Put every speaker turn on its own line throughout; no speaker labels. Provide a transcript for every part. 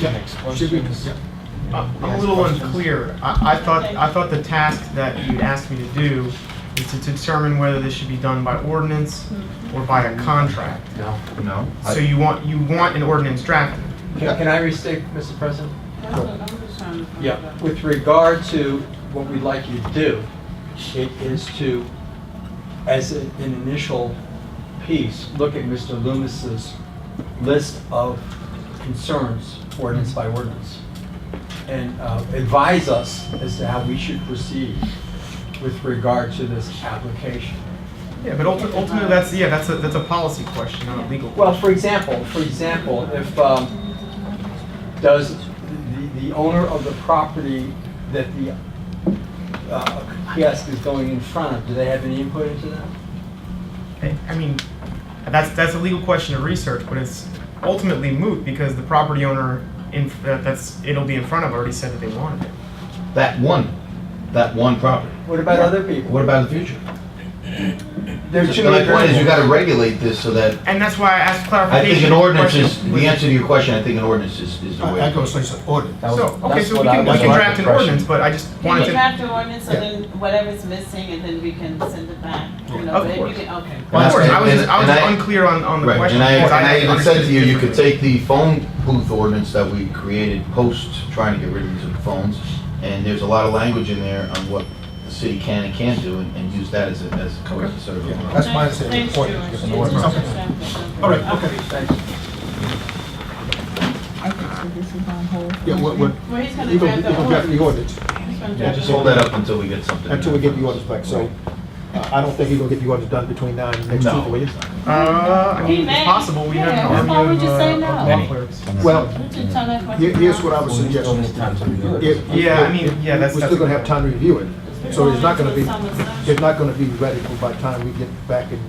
Next
Should be-
questions?
yep.
I'm a little unclear. I, I thought, I thought the task that you'd asked me to do is to determine whether this should be done by ordinance or by a contract.
No.
No?
So you want, you want an ordinance drafted.
Can can I restate, Mr. President?
That's what I'm just trying to find out.
With regard to what we'd like you to do, it is to, as a- an initial piece, look at Mr. Loomis's list of concerns, ordinance by ordinance, and uh, advise us as to how we should proceed with regard to this application.
Yeah, but ulti- ultimately, that's, yeah, that's a, that's a policy question, not a legal. question.
Well, for example, for example, if, um, does the, the owner of the property that the, uh, kiosk is going in front of, do they have any input into that?
I I mean, that's, that's a legal question to research, but it's ultimately moot because the property owner in, that- that's, it'll be in front of already said that they wanted it.
That one, that one property.
What about other people?
What about the future?
There are too
My
many
point is you
variables.
gotta regulate this so that,
And that's why I asked
I
clarification.
think an
of the
ordinance
question
is,
was-
the answer to your question, I think an ordinance is, is the way.
I I go, so you said order.
That was-
So, okay,
that's
so we
what I
can, we
was
can
under
draft an
impression.
ordinance, but I just
You
wanted
can
to,
draft an ordinance, so
Yeah.
then whatever's missing, and then we can send it back, you know,
Of
but if you
course.
can, okay.
well, of course, I was,
And-
just- I was
and I-
just unclear on, on the
Right,
question.
and I,
because
and I even said
understood
to
it
you, you could
differently.
take the phone booth ordinance that we created post trying to get rid of these phones, and there's a lot of language in there on what the city can and can't do, and, and use that as a, as a coercive sort of.
Yeah, that's why I said
Thanks,
order,
George.
because
It's
an order-
just
something.
something.
All right,
Okay.
okay.
Thanks.
Okay, so this is on hold.
Yeah, what, what,
Well, he's gonna
you
draft
can, you
the
can draft the
ordinance.
ordinance
He's gonna
Yeah,
draft
just
the
hold that up until we get something.
until we get the ordinance back, so uh, I don't think you're gonna get the ordinance done between now and next
No.
Tuesday, will you?
Uh, I
He
mean,
may.
it's possible, we have
Yeah,
an
why
army
would
of,
you
uh,
say
of
no?
law clerks.
Well,
We should tell that
here-
question
here's
now.
what I would suggest. If-
Yeah,
if-
I mean, yeah,
if-
that's-
We're
that's
still gonna have
okay.
time to review it, so it's not gonna be,
We're going into a summer
it's not gonna be ready for by the time we get back and,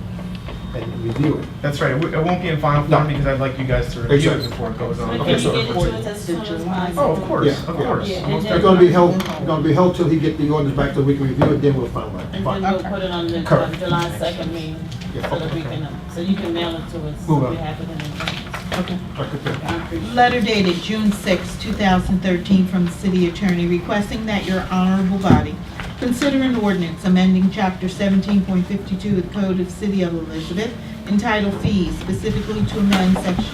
and review it.
That's right, it w- it won't be in final
No.
form because I'd like you guys to review it
Exactly.
before it goes on.
session. But
Okay,
can you
so-
get it to us as soon as possible?
Oh, of course,
Yeah,
of
yeah.
course.
Yeah,
Most
and
They're
definitely.
gonna be held, gonna be held till he get the ordinance back, so we can review it, then we'll
And
finalize.
then we'll put it on the uh,
Correct.
July second meeting, so
Yeah,
that
okay.
we can, uh, so you can mail it to us,
Move
so
on.
we have it in advance.
Okay.
I appreciate it.
Letter dated June 6, 2013, from the city attorney requesting that your honorable body consider an ordinance amending Chapter 17.52 of the Code of City of Elizabeth entitled Fees, specifically to amend Section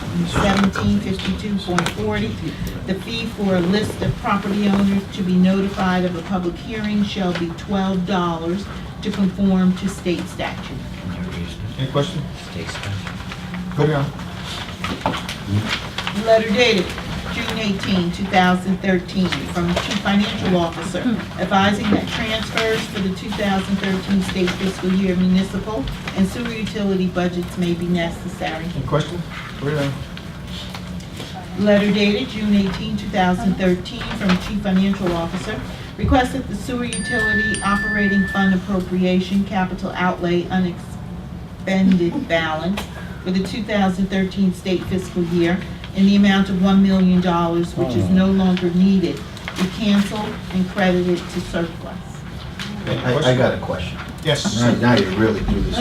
1752.40. The fee for a list of property owners to be notified of a public hearing shall be $12 to conform to state statute.
Any question? Go down.
Letter dated June 18, 2013, from the Chief Financial Officer advising that transfers for the 2013 state fiscal year municipal and sewer utility budgets may be necessary.
Any question? Go down.
Letter dated June 18, 2013, from Chief Financial Officer, request that the sewer utility operating fund appropriation capital outlay unexpended balance for the 2013 state fiscal year in the amount of $1 million, which is no longer needed, be canceled and credited to surplus.
I, I got a question.
Yes.
Now now you really do this.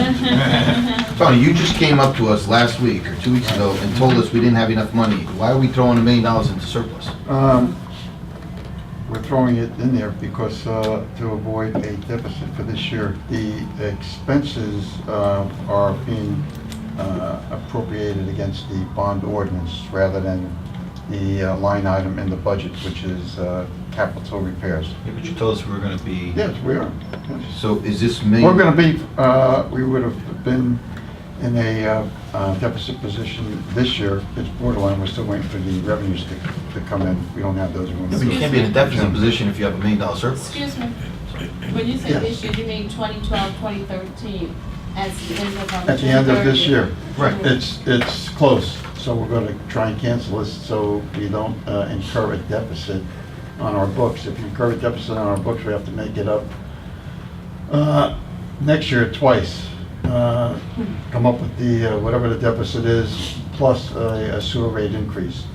Tony, you just came up to us last week or two weeks ago and told us we didn't have enough money. Why are we throwing a million dollars into surplus?
Um, We're throwing it in there because, uh, to avoid a deficit for this year, the expenses uh, are being uh, appropriated against the bond ordinance rather than the uh, line item in the budget, which is uh, capital repairs.
Yeah, but you told us we were gonna be.
Yes, we are. Yes.
So is this million?
We're going to be, uh, we would have been in a uh, uh, deficit position this year. It's borderline, we're still waiting for the revenues to to come in. We don't have those.
Yeah, but you can't be in a deficit position if you have a million dollar surplus.
Excuse me, when you say
Yes.
this year, you mean 2012, 2013, as the end of our...
At the end of this year.
Right.
It's, it's close, so we're going to try and cancel this so we don't uh, incur a deficit on our books. If you incur a deficit on our books, we have to make it up uh, next year twice. Uh, Come up with the, uh, whatever the deficit is, plus a a sewer rate increase.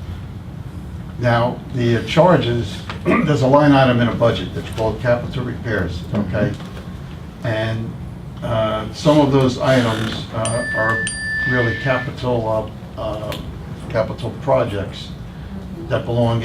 Now, the charges, there's a line item in a budget that's called capital repairs, okay? And uh, some of those items uh, are really capital, uh, uh, capital projects that belong